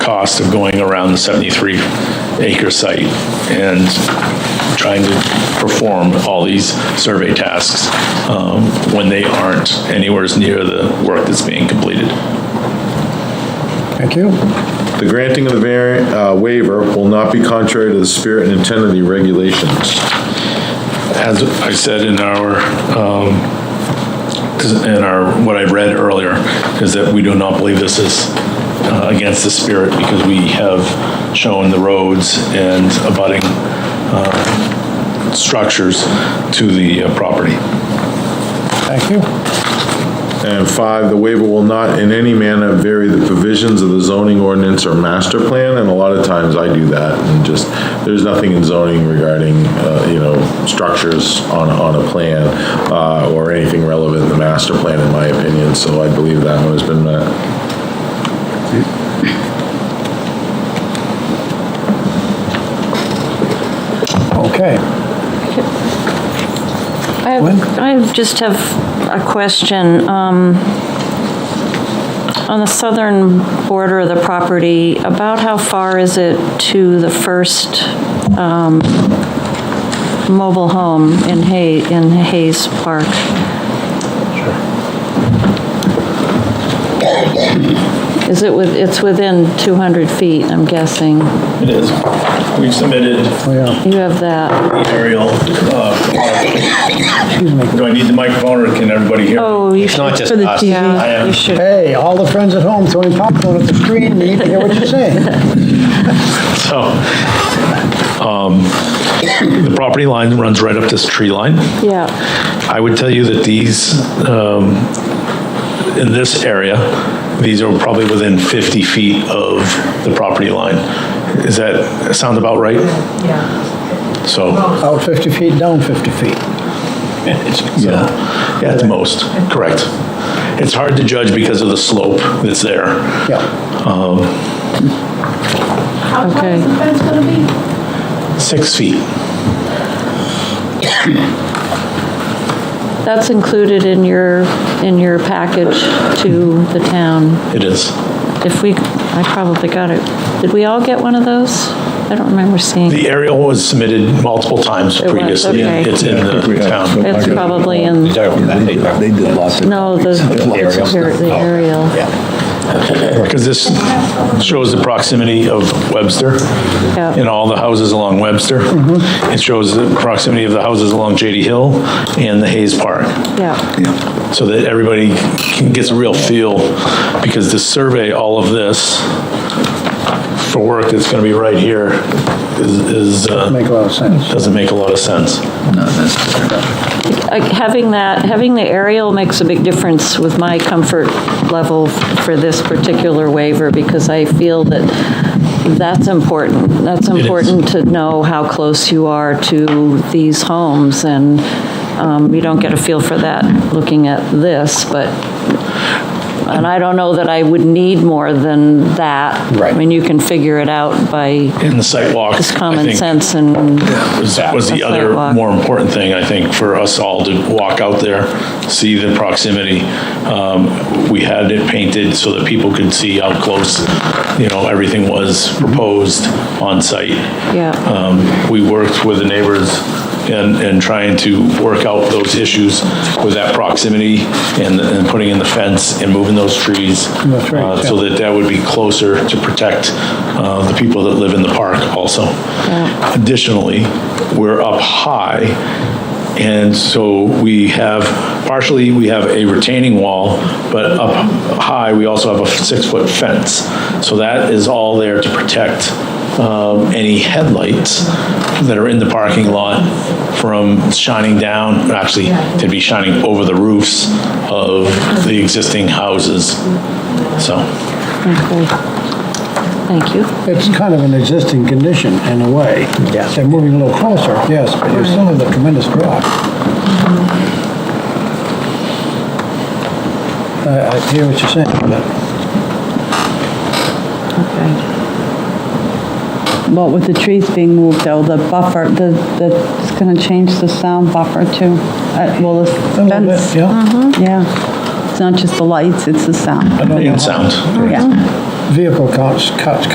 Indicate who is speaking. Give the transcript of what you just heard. Speaker 1: cost of going around the 73 acre site and trying to perform all these survey tasks um, when they aren't anywhere as near the work that's being completed.
Speaker 2: Thank you.
Speaker 3: The granting of the vari- uh, waiver will not be contrary to the spirit and intent of the regulations.
Speaker 1: as I said in our, um, in our, what I read earlier, is that we do not believe this is uh, against the spirit because we have shown the roads and abutting uh, structures to the uh, property.
Speaker 2: Thank you.
Speaker 3: And five, the waiver will not in any manner vary the provisions of the zoning ordinance or master plan, and a lot of times I do that, and just, there's nothing in zoning regarding, uh, you know, structures on, on a plan, uh, or anything relevant in the master plan, in my opinion, so I believe that one has been uh, met.
Speaker 2: Okay.
Speaker 4: I have- I have- just have a question. Um, On the southern border of the property, about how far is it to the first um, mobile home in Hay, in Hayes Park? Is it with, it's within 200 feet, I'm guessing.
Speaker 1: It is. We've submitted
Speaker 2: We are,
Speaker 4: You have that.
Speaker 1: the aerial. uh, Do I need the microphone or can everybody hear?
Speaker 4: Oh, you
Speaker 5: It's
Speaker 4: should.
Speaker 5: not just
Speaker 4: for the
Speaker 5: us.
Speaker 4: TV.
Speaker 1: I am-
Speaker 4: You should.
Speaker 2: hey, all the friends at home throwing popcorn at the screen, need to hear what you're saying.
Speaker 1: So, um, the property line runs right up this tree line.
Speaker 4: Yeah.
Speaker 1: I would tell you that these, um, in this area, these are probably within 50 feet of the property line. Is that sound about right? Yeah. So,
Speaker 2: Out 50 Oh, feet, down 50 feet.
Speaker 1: yeah, at the most, correct. It's hard to judge because of the slope that's there.
Speaker 2: Yeah,
Speaker 6: How tall is
Speaker 4: Okay.
Speaker 6: the fence gonna be?
Speaker 1: Six feet.
Speaker 4: That's included in your, in your package to the town.
Speaker 1: It is.
Speaker 4: If we, I probably got it. Did we all get one of those? I don't remember seeing.
Speaker 1: The aerial was submitted multiple times
Speaker 4: was,
Speaker 1: previously.
Speaker 4: okay.
Speaker 1: It's in the town.
Speaker 4: It's probably in,
Speaker 5: They did lots of.
Speaker 4: no, the the aerial.
Speaker 1: Because this shows the proximity of Webster
Speaker 4: Yeah.
Speaker 1: and all the houses along Webster. It shows the proximity of the houses along JD Hill and the Hayes Park,
Speaker 4: Yeah,
Speaker 1: so that everybody can- gets a real feel, because to survey all of this for work that's going to be right here is, is, uh,
Speaker 2: make a lot of sense.
Speaker 1: doesn't make a lot of sense.
Speaker 4: Like, having that, having the aerial makes a big difference with my comfort level for this particular waiver, because I feel that that's important. That's important to know how close you are to these homes, and um, you don't get a feel for that looking at this, but, and I don't know that I would need more than that.
Speaker 2: Right.
Speaker 4: I mean, you can figure it out by
Speaker 1: In the site walk,
Speaker 4: just
Speaker 1: I
Speaker 4: common
Speaker 1: think,
Speaker 4: sense and,
Speaker 1: was, was the
Speaker 4: A
Speaker 1: other
Speaker 4: sidewalk.
Speaker 1: more important thing, I think, for us all to walk out there, see the proximity. Um, We had it painted so that people could see how close, you know, everything was proposed on site.
Speaker 4: yeah.
Speaker 1: Um, We worked with the neighbors and, and trying to work out those issues with that proximity and, and putting in the fence and moving those trees.
Speaker 2: That's right,
Speaker 1: uh, So that that would be closer to protect uh, the people that live in the park also. Additionally, we're up high, and so we have, partially, we have a retaining wall, but up high, we also have a six-foot fence. So that is all there to protect um, any headlights that are in the parking lot from shining down, actually, to be shining over the roofs of the existing houses, so.
Speaker 4: Okay. Thank you.
Speaker 2: It's kind of an existing condition in a way. Yes. They're moving a little closer, yes, but you're still in the tremendous drop. I I hear what you're saying, but
Speaker 4: Okay.
Speaker 7: Well, with the trees being moved though, the buffer, the, the, it's gonna change the sound buffer too. Uh, well, the
Speaker 2: a little bit,
Speaker 7: fence, Mm-hmm.
Speaker 2: yeah.
Speaker 7: yeah. It's not just the lights, it's the sound.
Speaker 2: I don't know
Speaker 1: And
Speaker 2: how-
Speaker 1: sound.
Speaker 7: Yeah.
Speaker 2: Vehicle counts, cuts